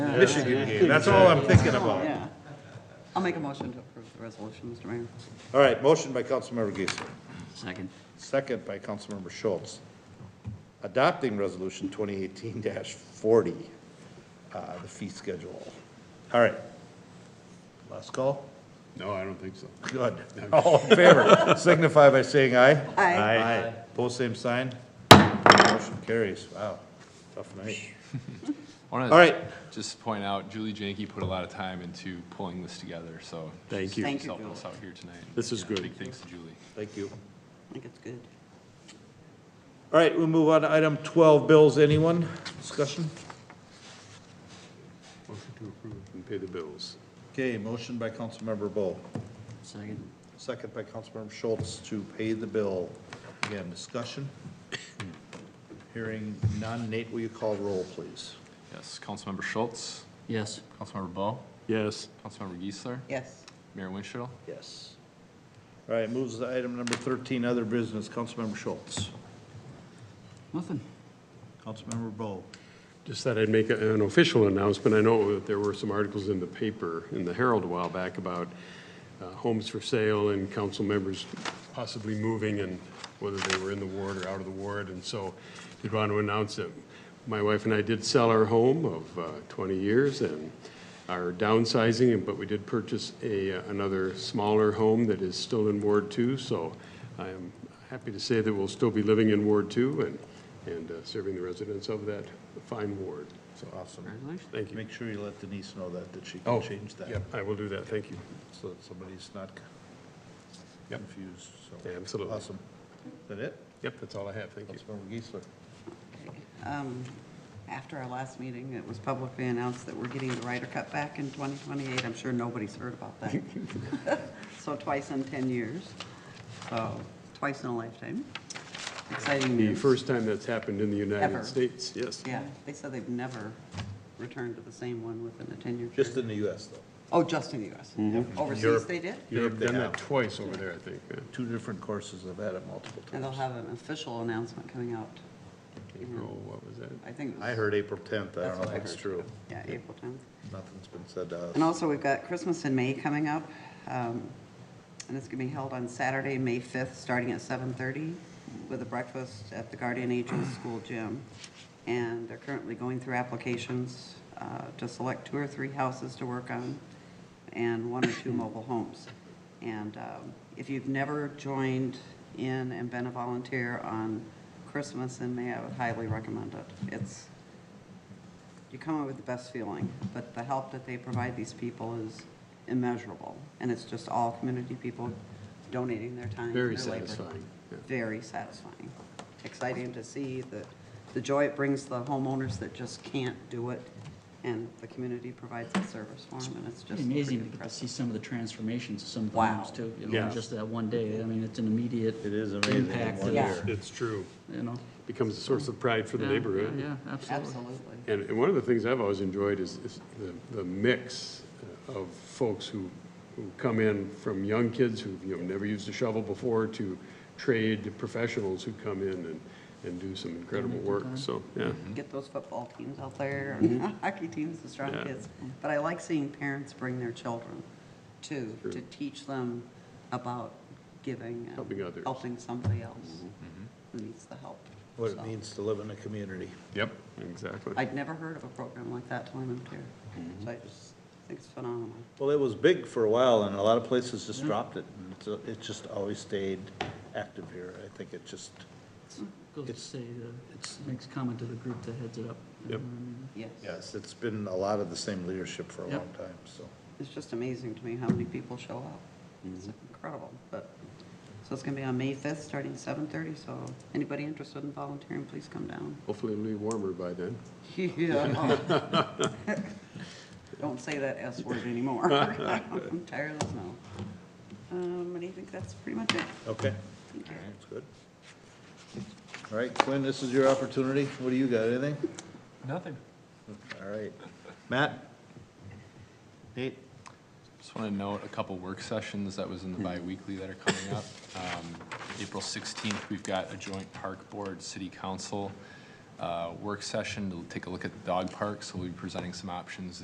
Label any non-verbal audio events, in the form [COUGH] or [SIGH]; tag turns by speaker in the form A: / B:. A: Michigan game, that's all I'm thinking about.
B: Yeah. I'll make a motion to approve the resolution, Mr. Mayor.
A: All right, motion by Councilmember Geisler,
C: Second.
A: second by Councilmember Schultz. Adopting Resolution 2018-40, uh, the fee schedule. All right. Last call?
D: No, I don't think so.
A: Good. All in favor, signify by saying aye.
B: Aye.
A: Aye. Pose same sign. Motion carries. Wow, tough night. All right.
E: Just to point out, Julie Janke put a lot of time into pulling this together, so.
D: Thank
B: you. Thank
E: She's
B: you,
E: helping
B: Julie.
E: us out here tonight.
D: This is
E: Yeah,
D: good.
E: Big thanks to Julie.
A: Thank you.
B: I think it's good.
A: All right, we'll move on to item 12, bills. Anyone? Discussion?
D: Motion to approve and pay the bills.
A: Okay, motion by Councilmember Bo,
C: Second.
A: second by Councilmember Schultz to pay the bill. Again, discussion? Hearing none. Nate, will you call roll, please?
E: Yes, Councilmember Schultz,
C: Yes.
E: Councilmember Bo,
D: Yes.
E: Councilmember Geisler,
B: Yes.
E: Mayor Winchell.
A: Yes. All right, moves to item number 13, other business. Councilmember Schultz.
C: Nothing.
A: Councilmember Bo.
D: Just thought I'd make a- an official announcement. I know that there were some articles in the paper, in the Herald a while back, about uh, homes for sale and council members possibly moving and whether they were in the ward or out of the ward. And so did want to announce that my wife and I did sell our home of uh, 20 years and are downsizing, but we did purchase a, uh, another smaller home that is still in Ward 2. So I am happy to say that we'll still be living in Ward 2 and and uh, serving the residents of that fine ward. So,
A: Awesome.
D: thank you.
A: Make sure you let Denise know that, that she
D: Oh,
A: can change that.
D: Yep, I will do that, thank you.
A: So that somebody's not c-
D: Yep.
A: confused, so.
D: Yeah, absolutely.
A: Awesome. Is that it?
D: Yep, that's all I have, thank you.
A: Councilmember Geisler.
B: Um, After our last meeting, it was publicly announced that we're getting the Ryder Cup back in 2028. I'm sure nobody's heard about that. So twice in 10 years, so twice in a lifetime. Exciting
D: The
B: news.
D: first time that's happened in the
B: Ever.
D: United States, yes.
B: Yeah, they said they've never returned to the same one within a 10-year
A: Just
B: period.
A: in the Mm-hmm. US though,
B: Oh, just in the US. Overseas
A: Europe.
B: they did?
D: You've
A: They
D: done
A: have.
D: that twice over there, I think. yeah.
A: two different courses, I've had it multiple
B: And they'll
A: times.
B: have an official announcement coming out,
D: April, what was that?
B: I think. it was-
A: I heard April tenth, I
B: That's
A: don't know
B: what
A: if
B: I
A: it's
B: heard.
A: true,
B: Yeah, April 10th.
A: nothing's been said to us.
B: And also, we've got Christmas in May coming up, um, and it's going to be held on Saturday, May 5th, starting at 7:30, with a breakfast at the Guardian Angels School Gym. And they're currently going through applications uh, to select two or three houses to work on, and one or two mobile homes. And um, if you've never joined in and been a volunteer on Christmas in May, I would highly recommend it. It's, you come up with the best feeling, but the help that they provide these people is immeasurable. And it's just all community people donating their time.
D: Very
B: their labor.
D: satisfying, yeah.
B: Very satisfying. Exciting to see the, the joy it brings the homeowners that just can't do it, and the community provides the service for them, and it's just pretty
C: Amazing to get to
B: impressive.
C: see some of the transformations of some of the
B: Wow.
C: homes too. you know,
D: Yeah.
C: in Just that one day. I mean, it's an immediate
A: It is amazing in
C: impact
A: one
C: of,
B: year.
D: It's true.
C: You know.
D: Becomes a source of pride for the
C: Yeah,
D: neighborhood.
C: Yeah, yeah, absolutely.
B: Absolutely.
D: And, and one of the things I've always enjoyed is, is the, the mix of folks who, who come in from young kids who've, you know, never used a shovel before to trade professionals who come in and, and do some incredible work, so, yeah.
B: Get those football teams out there, and hockey teams, the [LAUGHS] strong
D: Yeah.
B: kids. But I like seeing parents bring their children too,
D: Sure.
B: to teach them about giving and
D: Helping others. Mm-hmm.
B: helping somebody else who needs the help.
A: What it
B: So,
A: means to live in a community.
D: Yep, exactly.
B: I'd never heard of a program like that till I moved here.
D: Mm-hmm.
B: So I just think it's phenomenal.
A: Well, it was big for a while, and a lot of places just dropped it, and it's, it just always stayed active here, I think it just,
C: Goes to
A: It's-
C: say,
A: it's-
C: the makes comment to the group that heads it up.
D: Yep.
B: Yes.
A: yes, it's been a lot of the same leadership for a
C: Yep.
A: long time, so.
B: It's just amazing to me how many people show up. It's
D: Mm-hmm.
B: incredible, but, so it's gonna be on May fifth, starting seven thirty, so anybody interested in volunteering, please come down.
D: Hopefully it'll be warmer by then.
B: Yeah. [LAUGHS] Don't say that S word anymore. I'm tired of the snow. Um, and I think that's pretty much it.
A: Okay. That's good. All right, Quinn, this is your opportunity. What do you got, anything?
E: Nothing.
A: All right. Matt? Nate?
E: Just want to note a couple work sessions that was in the
D: Hmm.
E: bi-weekly that are coming up. Um, April 16th, we've got a joint park board, city council uh, work session to take a look at the dog park. So we'll be presenting some options